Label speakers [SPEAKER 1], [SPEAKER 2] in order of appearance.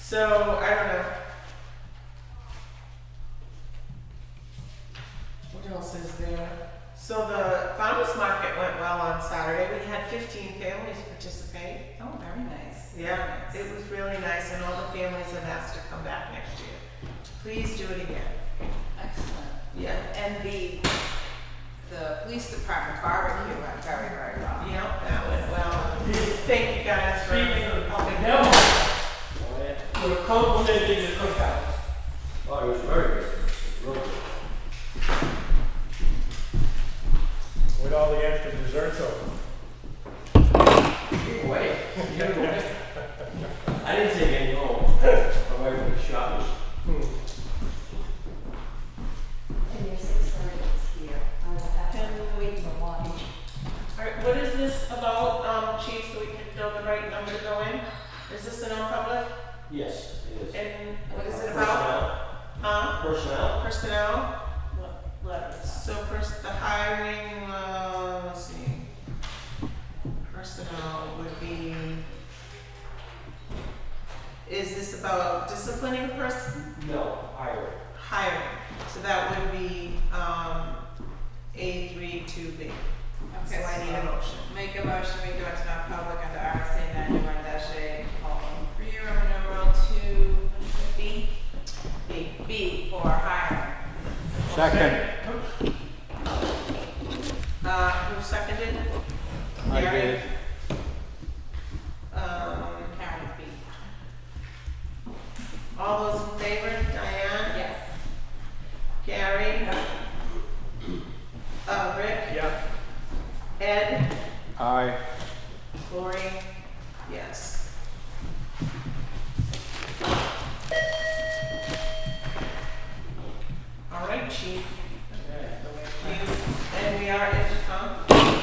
[SPEAKER 1] So I don't know. What else is there? So the farmers market went well on Saturday. We had 15 families participate.
[SPEAKER 2] Oh, very nice.
[SPEAKER 1] Yeah,
[SPEAKER 2] Very
[SPEAKER 1] it
[SPEAKER 2] nice.
[SPEAKER 1] was really nice, and all the families have asked to come back next year. Please do it again.
[SPEAKER 2] Excellent.
[SPEAKER 1] Yeah.
[SPEAKER 2] And the, the police department barbecue went very, very well.
[SPEAKER 1] Yep, that went well. Thank you guys for helping.
[SPEAKER 3] Now,
[SPEAKER 4] Oh, yeah.
[SPEAKER 3] we're complimenting the cookout.
[SPEAKER 4] Oh, it was very good. It was real good.
[SPEAKER 5] With all the extra desserts over.
[SPEAKER 4] Give away. Give away. I didn't take any home. My wife was shopping.
[SPEAKER 6] And your six servants here, I will have to wait for one.
[SPEAKER 1] All right, what is this about, um, chief, so we can know the right number to go in? Is this an non-public?
[SPEAKER 4] Yes, it is.
[SPEAKER 1] And what is it about? Huh?
[SPEAKER 4] Personnel. Personnel.
[SPEAKER 1] Personnel? So first, the hiring, uh, let's see. Personnel would be. Is this about disciplining a person?
[SPEAKER 4] No, highway.
[SPEAKER 1] hiring. So that would be um, A3 to B. So
[SPEAKER 2] Okay,
[SPEAKER 1] I need a
[SPEAKER 2] so
[SPEAKER 1] motion.
[SPEAKER 2] make a motion, we go into non-public under RSA ninety-one dash A, column three, Roman numeral two, B. B. B for hiring.
[SPEAKER 7] Second.
[SPEAKER 1] Uh, who seconded?
[SPEAKER 7] I
[SPEAKER 1] Gary?
[SPEAKER 7] did.
[SPEAKER 1] Um,
[SPEAKER 2] Karen with B.
[SPEAKER 1] all those in favor? Diane?
[SPEAKER 2] Yes.
[SPEAKER 1] Gary? Uh, Rick?
[SPEAKER 5] Yeah.
[SPEAKER 1] Ed?
[SPEAKER 7] Aye.
[SPEAKER 1] Lori? Yes. All right, chief.
[SPEAKER 4] Okay.
[SPEAKER 1] You- And we are in um,